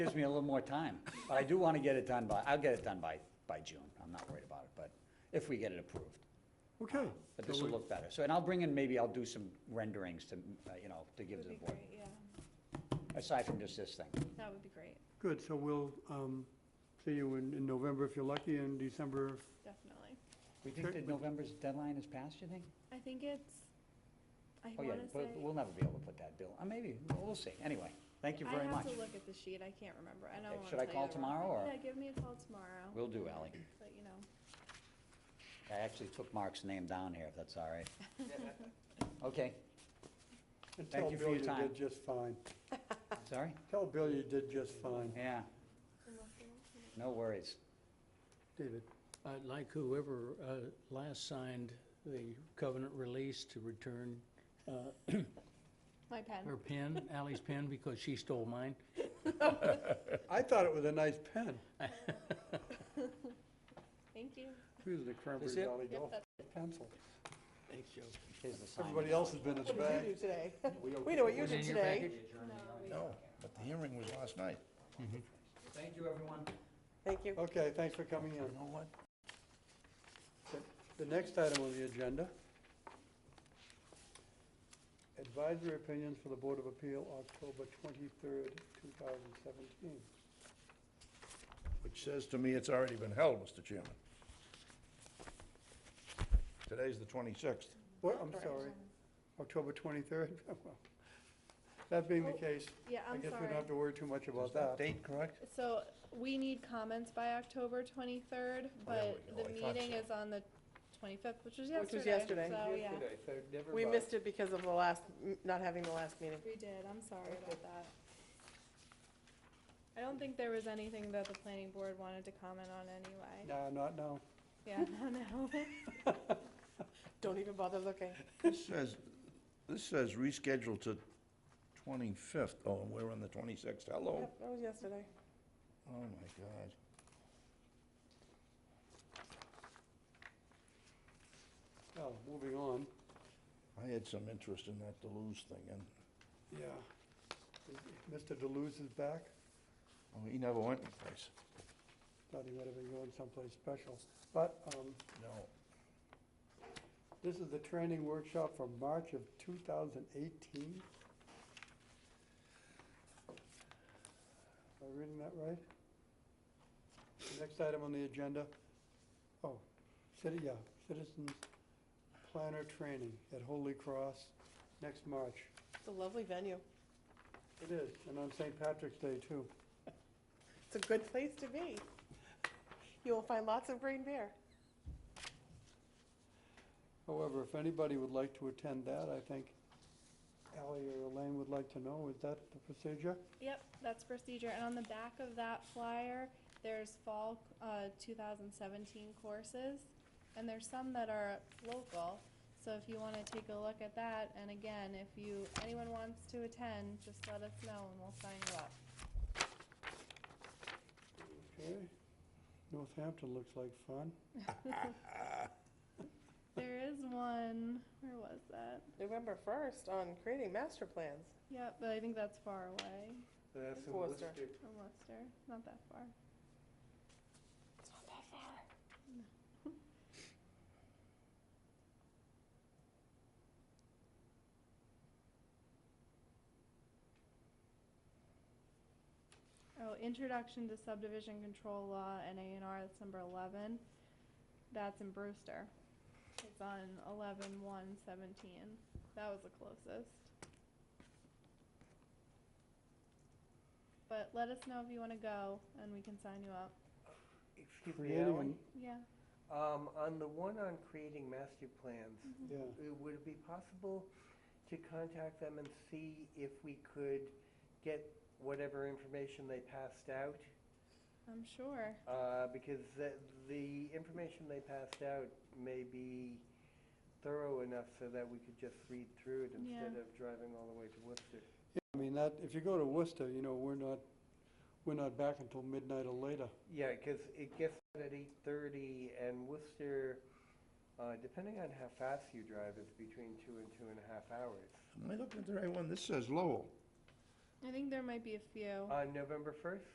Gives me a little more time, but I do want to get it done by, I'll get it done by, by June. I'm not worried about it, but if we get it approved. Okay. But so this will we- look better. So, and I'll bring in, maybe I'll do some renderings to, uh, you know, to give Would to the be board, great, yeah, aside from just this thing. that would be great, Good, so we'll um, see you in in November if you're lucky, and December, definitely. We think Sure. that November's deadline is past, you think? I think it's, I Oh, yeah, wanna say. but we'll never be able to put that bill, uh, maybe, we'll we'll see. Anyway, thank you very I have much. to look at the sheet, I can't remember, I Okay, don't wanna should I tell you call the wrong tomorrow, thing. or- Yeah, give me a call tomorrow, Will do, Ally. let you know. I actually took Mark's name down here, if that's all right. Okay, and Thank tell you for Bill your you time. did just fine. sorry? Tell Bill you did just fine. Yeah, Unless they want to- no worries. David, I'd like whoever uh, last signed the covenant release to return uh, My pen, her pen, Ally's pen, because she stole mine. I thought it was a nice pen. thank you, Using the Cranberry Is it? Valley Yep, Golf that's pencil. Thanks, Joe. Here's the sign. Everybody else has been in the What did bag. you do today? We know what you Was it in did your today. package? No, but the hearing was last night. Thank you, everyone. Thank you. Okay, thanks for coming in. You know what? The- The next item on the agenda, advisory opinions for the Board of Appeal, October 23rd, 2017. Which says to me it's already been held, Mr. Chairman. Today's the 26th. What, I'm sorry, October 23rd? Well, That being the case, yeah, I Oh, I'm guess we sorry. don't have to worry too much Is about that. that date correct? So, we need comments by October twenty-third, there but we go. the I thought meeting so. is on the twenty-fifth, which was yesterday, Which so, was yeah. yesterday. We missed it because of the last, not having the last meeting. We did, I'm sorry about that. I don't think there was anything that the planning board wanted to comment on anyway. No, not now. Yeah, no, no. Don't even bother looking. This says, this says rescheduled to 25th. Oh, and we're on the 26th. Hello? Yep, That was yesterday. Oh, my God. Well, moving on. I had some interest in that Deleuze thing, and, Yeah. Mr. Deleuze is back. oh, he never went anyplace. Thought he might have been going someplace special. But um, No. this is the training workshop from March of 2018. Am I reading that right? The Next item on the agenda, oh, city, yeah, citizens planner training at Holy Cross next March. It's a lovely venue. It is, and on St. Patrick's Day, too. It's a good place to be. You will find lots of green beer. However, if anybody would like to attend that, I think Ally or Elaine would like to know, is that the procedure? Yep, that's procedure, and on the back of that flyer, there's fall, uh, two thousand seventeen courses, and there's some that are local, so if you wanna take a look at that, and again, if you, anyone wants to attend, just let us know and we'll sign you up. Okay. Northampton looks like fun. There is one, where was that? November 1st on creating master plans. Yep, but I think that's far away. That's in Worcester. From Leicester, not that far. It's not that far. Oh, Introduction to Subdivision Control Law and A and R, that's number eleven. That's in Brewster. It's on eleven one seventeen. That was the closest. But let us know if you wanna go and we can sign you up. Excuse me, Creating, Alan. a- Yeah. Um, on the one on creating master plans, yeah, uh, would it be possible to contact them and see if we could get whatever information they passed out? I'm sure. Uh, because the, the information they passed out may be thorough enough so that we could just read through it Yeah. instead of driving all the way to Worcester. I mean, that, if you go to Worcester, you know, we're not, we're not back until midnight or later. Yeah, because it gets out at eight thirty, and Worcester, uh, depending on how fast you drive, it's between two and two and a half hours. Am I looking at the right one? This says Lowell. I think there might be a few. On November first,